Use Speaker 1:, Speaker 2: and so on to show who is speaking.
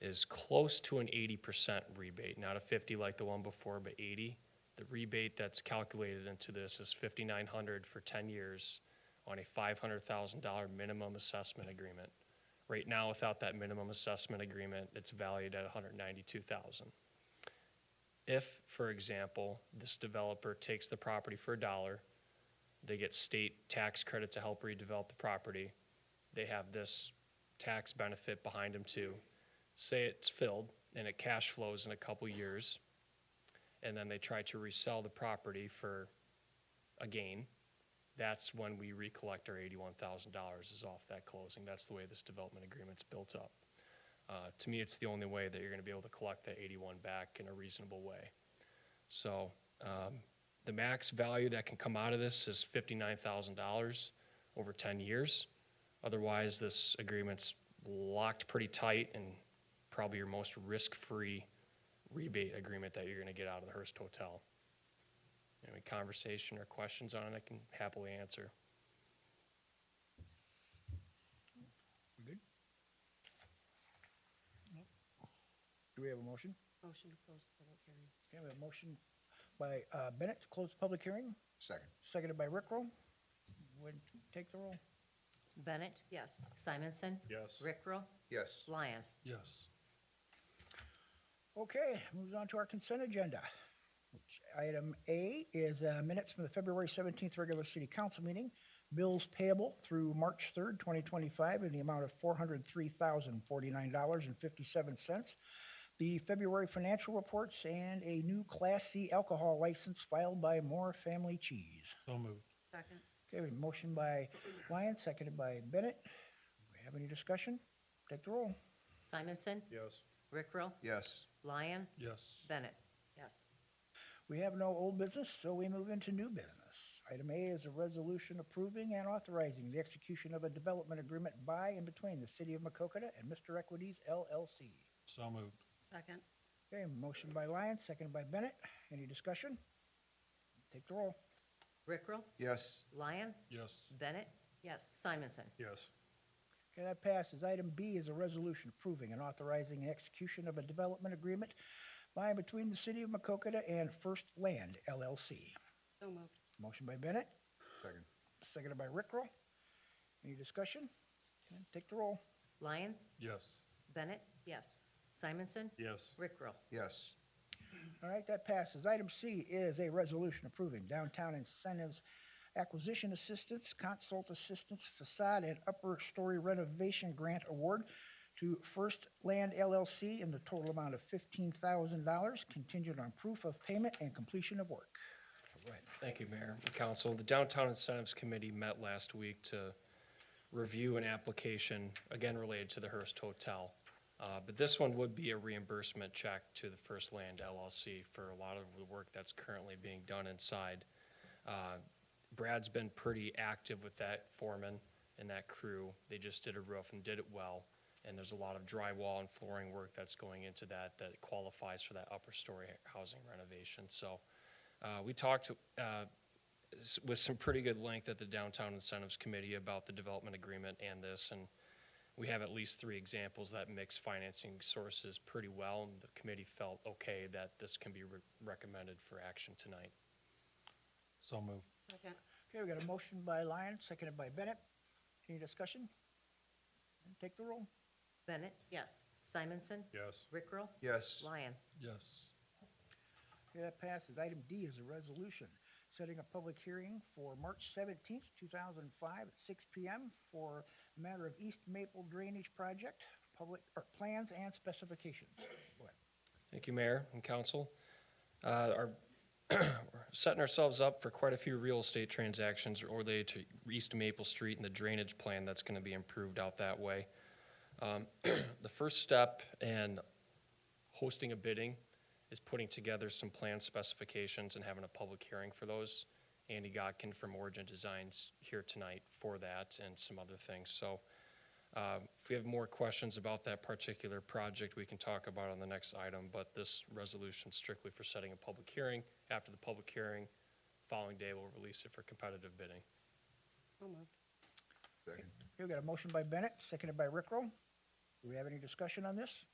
Speaker 1: is close to an eighty percent rebate, not a fifty like the one before, but eighty. The rebate that's calculated into this is fifty-nine hundred for ten years on a five hundred thousand dollar minimum assessment agreement. Right now, without that minimum assessment agreement, it's valued at $192,000. If, for example, this developer takes the property for a dollar, they get state tax credit to help redevelop the property. They have this tax benefit behind them too. Say it's filled and it cash flows in a couple years, and then they try to resell the property for a gain. That's when we recollect our eighty-one thousand dollars is off that closing. That's the way this development agreement's built up. Uh, to me, it's the only way that you're gonna be able to collect that eighty-one back in a reasonable way. So, um, the max value that can come out of this is fifty-nine thousand dollars over ten years. Otherwise, this agreement's locked pretty tight and probably your most risk-free rebate agreement that you're gonna get out of the Hearst Hotel. Any conversation or questions on it, I can happily answer.
Speaker 2: Good? Do we have a motion?
Speaker 3: Motion to close the public hearing.
Speaker 2: Okay, we have a motion by uh, Bennett to close the public hearing,
Speaker 4: Second.
Speaker 2: seconded by Rickrell. Would take the roll?
Speaker 5: Bennett?
Speaker 3: Yes.
Speaker 5: Simonson?
Speaker 6: Yes.
Speaker 5: Rickrell?
Speaker 4: Yes.
Speaker 5: Lyon?
Speaker 6: Yes.
Speaker 2: Okay, moves on to our consent agenda. which Item A is uh, minutes from the February 17th regular city council meeting. Bills payable through March 3rd, 2025, in the amount of $403,049.57. The February financial reports and a new Class C alcohol license filed by Moore Family Cheese.
Speaker 6: So moved.
Speaker 3: Second.
Speaker 2: Okay, we have a motion by Lyon, seconded by Bennett. Do we have any discussion? Take the roll.
Speaker 5: Simonson?
Speaker 6: Yes.
Speaker 5: Rickrell?
Speaker 4: Yes.
Speaker 5: Lyon?
Speaker 6: Yes.
Speaker 5: Bennett?
Speaker 3: Yes.
Speaker 2: We have no old business, so we move into new business. Item A is a resolution approving and authorizing the execution of a development agreement by and between the City of Macokota and Mr. Equities LLC.
Speaker 6: So moved.
Speaker 3: Second.
Speaker 2: Okay, motion by Lyon, seconded by Bennett. Any discussion? Take the roll.
Speaker 5: Rickrell?
Speaker 4: Yes.
Speaker 5: Lyon?
Speaker 6: Yes.
Speaker 5: Bennett?
Speaker 3: Yes.
Speaker 5: Simonson?
Speaker 6: Yes.
Speaker 2: Okay, that passes. Item B is a resolution approving and authorizing an execution of a development agreement by and between the City of Macokota and First Land LLC.
Speaker 3: So moved.
Speaker 2: Motion by Bennett,
Speaker 4: Second.
Speaker 2: seconded by Rickrell. Any discussion? Okay, Take the roll.
Speaker 5: Lyon?
Speaker 6: Yes.
Speaker 5: Bennett?
Speaker 3: Yes.
Speaker 5: Simonson?
Speaker 6: Yes.
Speaker 5: Rickrell?
Speaker 4: Yes.
Speaker 2: All right, that passes. Item C is a resolution approving downtown incentives, acquisition assistance, consult assistance, facade and upper story renovation grant award to First Land LLC in the total amount of fifteen thousand dollars contingent on proof of payment and completion of work. All right.
Speaker 1: Thank you, Mayor and Council. The Downtown Incentives Committee met last week to review an application, again related to the Hearst Hotel. Uh, But this one would be a reimbursement check to the First Land LLC for a lot of the work that's currently being done inside. Uh, Brad's been pretty active with that foreman and that crew. They just did a roof and did it well. And there's a lot of drywall and flooring work that's going into that that qualifies for that upper story housing renovation. So uh, we talked uh, s- with some pretty good length at the Downtown Incentives Committee about the development agreement and this, and we have at least three examples that mix financing sources pretty well, and the committee felt okay that this can be re- recommended for action tonight.
Speaker 6: So moved.
Speaker 3: Second.
Speaker 2: Okay, we got a motion by Lyon, seconded by Bennett. Any discussion? Take the roll.
Speaker 5: Bennett? Yes. Simonson?
Speaker 6: Yes.
Speaker 5: Rickrell?
Speaker 4: Yes.
Speaker 5: Lyon?
Speaker 6: Yes.
Speaker 2: Okay, that passes. Item D is a resolution setting a public hearing for March seventeenth, two thousand and five, at six P M. for the matter of East Maple Drainage Project, public, or plans and specifications. Go ahead.
Speaker 1: Thank you, Mayor and Council. Uh, our- We're setting ourselves up for quite a few real estate transactions related to East Maple Street and the drainage plan that's going to be improved out that way. Um, The first step in hosting a bidding is putting together some plan specifications and having a public hearing for those. Andy Godkin from Origin Designs here tonight for that and some other things. So uh, If we have more questions about that particular project, we can talk about on the next item, but this resolution strictly for setting a public hearing. After the public hearing, following day, we'll release it for competitive bidding.
Speaker 3: So moved.
Speaker 4: Second.
Speaker 2: Okay, we got a motion by Bennett, seconded by Rickrell. Do we have any discussion on this?